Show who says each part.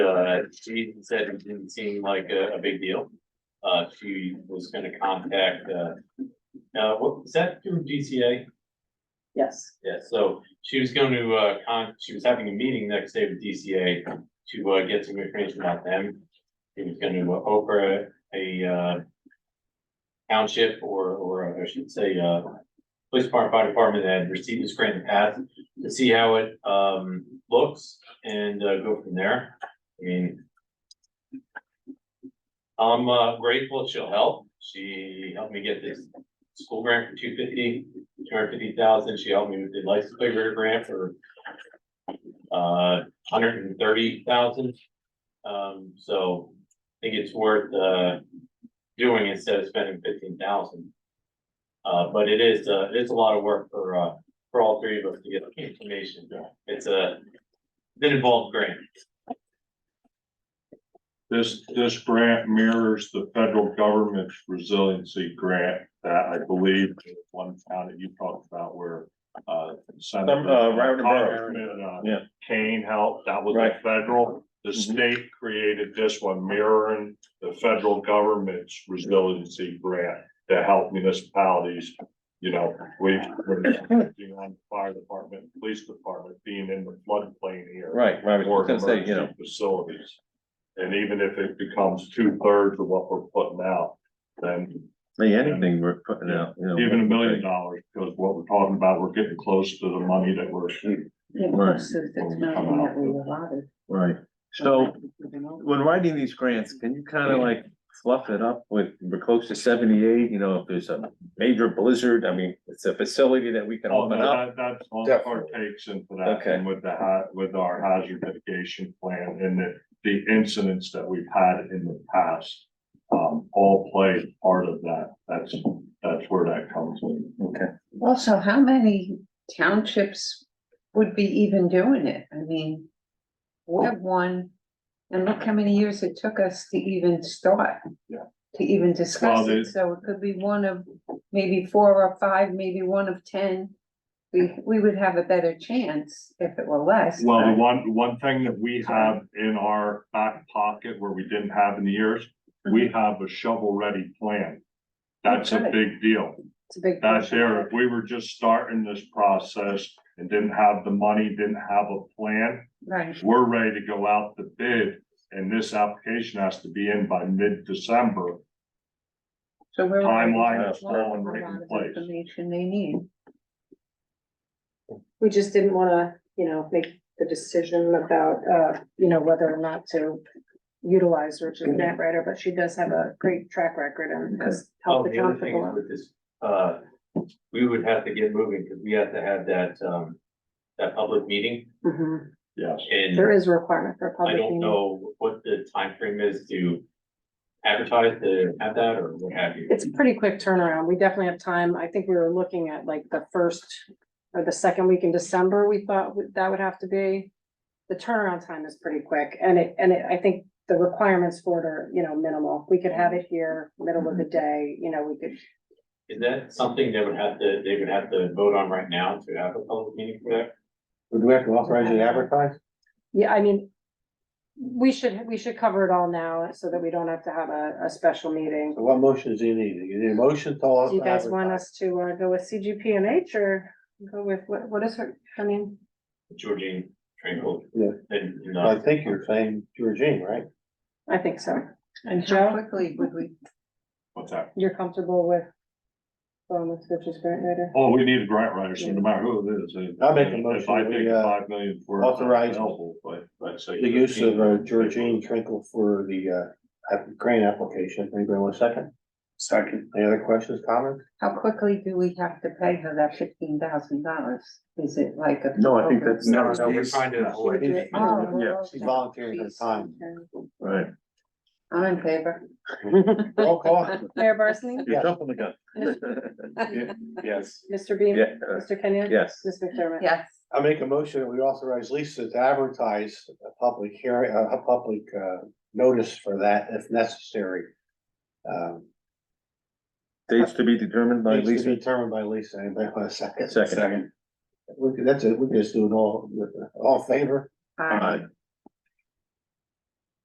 Speaker 1: said, uh, she said it didn't seem like a, a big deal. Uh, she was gonna contact, uh, uh, what, is that through DCA?
Speaker 2: Yes,
Speaker 1: Yeah, so she was going to, uh, con, she was having a meeting next day with DCA to, uh, get some information about them. She was gonna uh, offer a, uh, township or, or I should say, uh, police department, fire department that had received this grant in the past to see how it, um, looks and, uh, go from there. I mean, I'm uh, grateful she'll help. She helped me get this school grant for two fifty two hundred fifty thousand, she helped me with the license plate reader grant for uh, hundred and thirty thousand. Um, so I think it's worth, uh, doing instead of spending fifteen thousand. Uh, but it is, uh, it's a lot of work for, uh, for all three of us to get the information. It's a, been involved grant.
Speaker 3: This, this grant mirrors the federal government's resiliency grant that I believe the one town that you talked about where, uh. Senator-
Speaker 4: Some, uh, Rowden Borough.
Speaker 3: Congressman, uh,
Speaker 4: Yeah.
Speaker 3: Kane helped, that was
Speaker 4: Right. Mm-hmm.
Speaker 3: a federal, the state created this one mirroring the federal government's resiliency grant to help municipalities. You know, we, we're working on the fire department, police department, being in the floodplain here
Speaker 4: right, right, I was
Speaker 3: or
Speaker 4: gonna say, you know,
Speaker 3: emergency facilities. And even if it becomes two thirds of what we're putting out, then
Speaker 4: hey, anything we're putting out, you know.
Speaker 3: even a million dollars, because what we're talking about, we're getting close to the money that we're.
Speaker 2: yeah,
Speaker 4: Right.
Speaker 2: because it's not in that we allotted.
Speaker 4: Right, so
Speaker 2: Something else.
Speaker 4: when writing these grants, can you kind of like fluff it up with, we're close to seventy-eight, you know, if there's a major blizzard, I mean, it's a facility that we can
Speaker 3: Oh,
Speaker 4: open up.
Speaker 3: no, that- That's all our takes into that,
Speaker 4: Okay.
Speaker 3: and with the, ha- with our hazard mitigation plan and the, the incidents that we've had in the past. Um, all played part of that, that's, that's where that comes in.
Speaker 4: Okay,
Speaker 2: Also, how many townships would be even doing it? I mean, we have one, and look how many years it took us to even start.
Speaker 3: Yeah.
Speaker 2: To even discuss
Speaker 3: Well,
Speaker 2: it,
Speaker 3: there's-
Speaker 2: so it could be one of maybe four or five, maybe one of ten. We, we would have a better chance if it were less.
Speaker 3: Well, the one, one thing that we have in our back pocket where we didn't have in the years, we have a shovel-ready plan. That's a
Speaker 2: Okay.
Speaker 3: big deal.
Speaker 2: It's a big.
Speaker 3: That's
Speaker 2: portion.
Speaker 3: there, if we were just starting this process and didn't have the money, didn't have a plan,
Speaker 2: Right,
Speaker 3: we're ready to go out to bid. And this application has to be in by mid-December.
Speaker 2: so we're.
Speaker 3: Timeline
Speaker 2: Well,
Speaker 3: is falling right
Speaker 2: a lot
Speaker 3: in
Speaker 2: of
Speaker 3: place.
Speaker 2: Information they need.
Speaker 5: We just didn't wanna, you know, make the decision about, uh, you know, whether or not to utilize Richard Grant Writer, but she does have a great track record and has
Speaker 1: Oh,
Speaker 5: helped the
Speaker 1: the other
Speaker 5: town for
Speaker 1: thing is with this, uh, we would have to get moving because we have to have that, um, that public meeting
Speaker 5: Mhm.
Speaker 3: Yes.
Speaker 1: and.
Speaker 5: There is a requirement for a
Speaker 1: I
Speaker 5: public
Speaker 1: don't
Speaker 5: meeting.
Speaker 1: know what the time frame is to advertise to have that or what have you.
Speaker 5: It's a pretty quick turnaround. We definitely have time. I think we were looking at like the first or the second week in December, we thought would- that would have to be. The turnaround time is pretty quick and it, and it, I think the requirements for it are, you know, minimal. We could have it here, middle of the day, you know, we could
Speaker 1: Is that something they would have to, they would have to vote on right now to have a public meeting for that?
Speaker 6: Would we have to authorize it advertised?
Speaker 5: Yeah, I mean, we should, we should cover it all now so that we don't have to have a, a special meeting.
Speaker 6: So what motions do you need? You need a motion to.
Speaker 5: Do you guys want
Speaker 6: advertise?
Speaker 5: us to uh, go with CGP and H or go with, what, what is her, I mean,
Speaker 1: Georgine Trinkle?
Speaker 6: Yeah.
Speaker 1: And, uh, you
Speaker 6: I
Speaker 1: know,
Speaker 6: think you're saying Georgine, right?
Speaker 5: I think so.
Speaker 2: And how
Speaker 5: Joe?
Speaker 2: quickly would we,
Speaker 3: What's that?
Speaker 5: You're comfortable with going with Richard's grant writer?
Speaker 3: Oh, we need a grant writer, so no matter who it is. it-
Speaker 6: I'll make a
Speaker 3: If I
Speaker 6: motion, we,
Speaker 3: take
Speaker 6: uh,
Speaker 3: five million for. it,
Speaker 6: authorize-
Speaker 3: helpful, But, but say.
Speaker 6: The use of uh, Georgine Trinkle for the uh, app- grant application. Anybody want a second? Second. Any other questions, comments?
Speaker 2: how quickly do we have to pay her that fifteen thousand dollars? Is it like a?
Speaker 4: No, I think that's-
Speaker 2: program?
Speaker 4: no,
Speaker 1: we're trying to avoid.
Speaker 6: She's-
Speaker 2: Oh, well,
Speaker 4: Yeah.
Speaker 6: She
Speaker 2: okay.
Speaker 6: volunteered her
Speaker 2: Jeez.
Speaker 6: time.
Speaker 4: right.
Speaker 2: I'm in favor.
Speaker 6: Roll call?
Speaker 5: Mayor Barsney?
Speaker 4: You're
Speaker 6: Yes.
Speaker 4: jumping the gun.
Speaker 1: Yes.
Speaker 5: Mr. Beam?
Speaker 4: Yeah, uh,
Speaker 5: Mr. Kenyon?
Speaker 4: Yes,
Speaker 5: Ms. McDermott?
Speaker 2: Yes,
Speaker 6: I make a motion that we authorize Lisa to advertise a public hearing, a a public uh, notice for that if necessary. Um,
Speaker 4: dates to be determined by
Speaker 6: Needs to be
Speaker 4: Lisa.
Speaker 6: determined by Lisa. Anybody want a second?
Speaker 4: Second.
Speaker 6: We could, that's it, we could just do it all, all in favor,
Speaker 2: I,